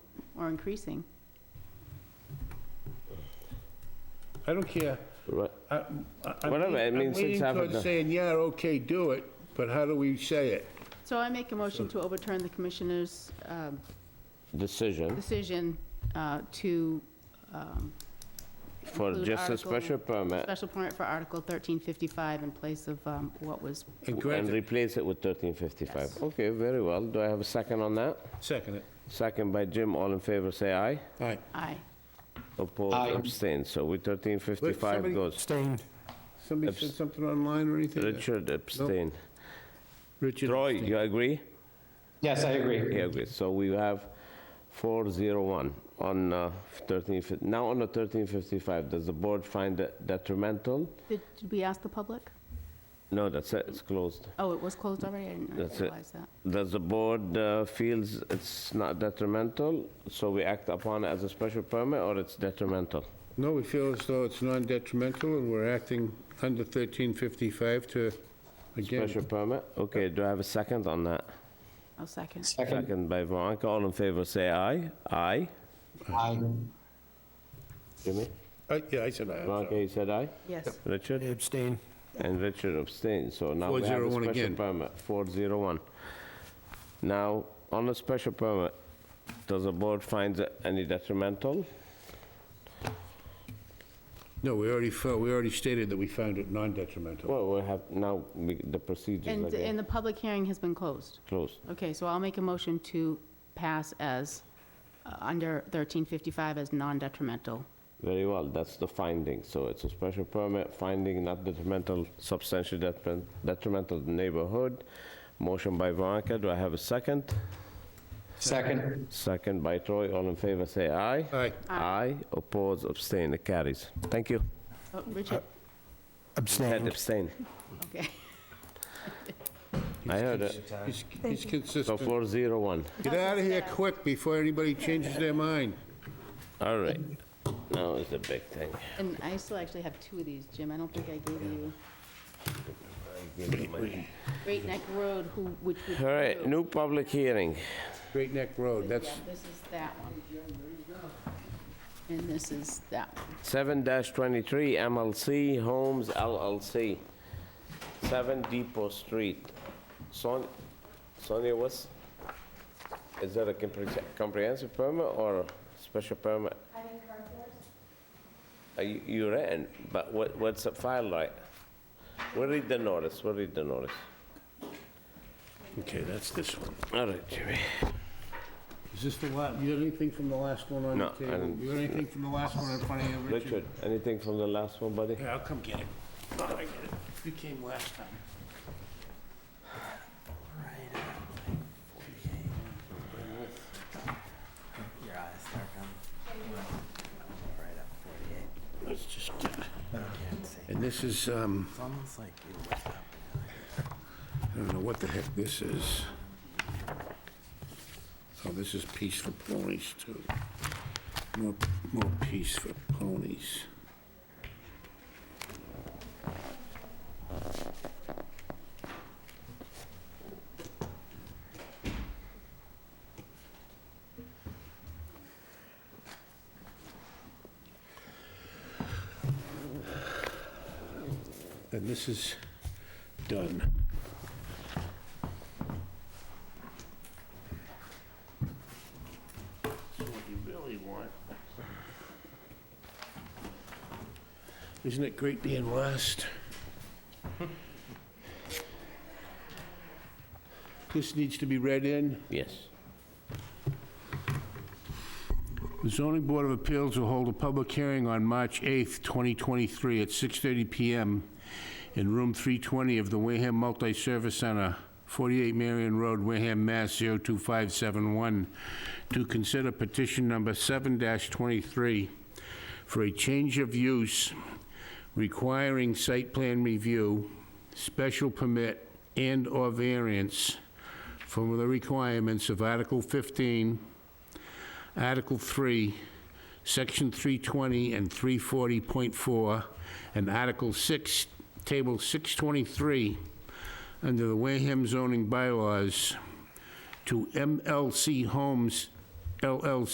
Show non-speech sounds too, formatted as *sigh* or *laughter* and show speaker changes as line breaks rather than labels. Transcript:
or increasing.
I don't care.
Right.
I- I- I'm
Whatever, I
lean-
mean, since
I'm
half of
leaning
the-
towards saying, yeah, okay, do it, but how do we say it?
So I make a motion to overturn the commissioner's um,
Decision
decision uh, to um,
for
Include
just a
article-
special permit
special permit for Article 1355 in place of um, what was,
And
and
grant it,
replace it with 1355. Okay, very well. Do I have a second on that?
second it.
Second by Jim, all in favor, say aye.
All right.
aye.
Opposed, abstained, so we
Wait,
1355
somebody-
goes.
Somebody said something online or anything?
Richard abstained.
Richard.
Troy, you agree?
Yes, I agree.
He agrees. So we have 401 on uh, 13, fif- now on the 1355, does the board find it detrimental?
Did did we ask the public?
No, that's it, it's closed.
Oh, it was closed already? I didn't
That's it.
realize that.
Does the board uh, feels it's not detrimental, so we act upon it as a special permit, or it's detrimental?
No, we feel as though it's non-detrimental, and we're acting under 1355 to,
Special
again,
permit? Okay, do I have a second on that?
I'll Oh, second.
Second,
Second by Veronica, all in favor, say aye. Aye?
aye.
Jimmy?
I- Uh, yeah, I said aye, I'm sorry.
Veronica, you said aye?
Yes.
Richard? Abstain. And Richard abstained, so now we have a
401
special
again.
permit, 401. Now, on the special permit, does the board find it any detrimental?
No, we already, fo- we already stated that we found it non-detrimental.
Well, we have, now, we- the procedures
And, and
again
the public hearing has been closed.
closed.
Okay, so I'll make a motion to pass as, uh, under 1355 as non-detrimental.
Very well, that's the finding, so it's a special permit, finding not detrimental, substantially detrim- detrimental to the neighborhood. Motion by Veronica, do I have a second?
Second,
Second by Troy, all in favor, say aye.
Aye.
Aye, oppose, abstain, it carries. Thank you.
Oh, Richard,
Uh, Ted abstain.
okay.
I heard it.
He's- He's
So
consistent.
401.
Get out of here quick before anybody changes their mind.
All right. Now is the big thing.
And I still actually have two of these, Jim. I don't think I gave you. Great Neck Road, who, which would.
All right, new public hearing.
Great Neck Road,
Yeah,
that's,
this is that one. And this is that one.
7-23 MLC Homes LLC, 7 Depot Street. Son- Sonia, what's, is that a compre- comprehensive permit or special permit? Are you, you written, but what, what's the file like? We'll read the notice, we'll read the notice.
okay, that's this one.
All right, Jimmy.
Is this the last, you got anything from the last one on
No,
your
I
table?
didn't-
You got anything from the last one in front of you, Richard?
Richard, anything from the last one, buddy?
Yeah, I'll come get it. Oh, I get it. You came last time.
Your eyes start coming right up 48.
Let's just get it.
You can't see.
And this is, um,
It's almost like you wake up.
I don't know what the heck this is. Oh, this is Peace for Ponies, too. More, more Peace for Ponies. And this is done. So what you really want. Isn't it great being *laughs* last? This needs to be read in.
Yes.
The zoning board of appeals will hold a public hearing on March 8th, 2023, at 6:30 PM in room 320 of the Wareham Multi-Service Center, 48 Marion Road, Wareham, Mass. 02571, to consider petition number 7-23 for a change of use requiring site plan review, special permit, and/or variance from the requirements of Article 15 Article 3, Section 320 and 340.4, and Article 6, Table 623, under the Wareham zoning bylaws, to MLC Homes LLC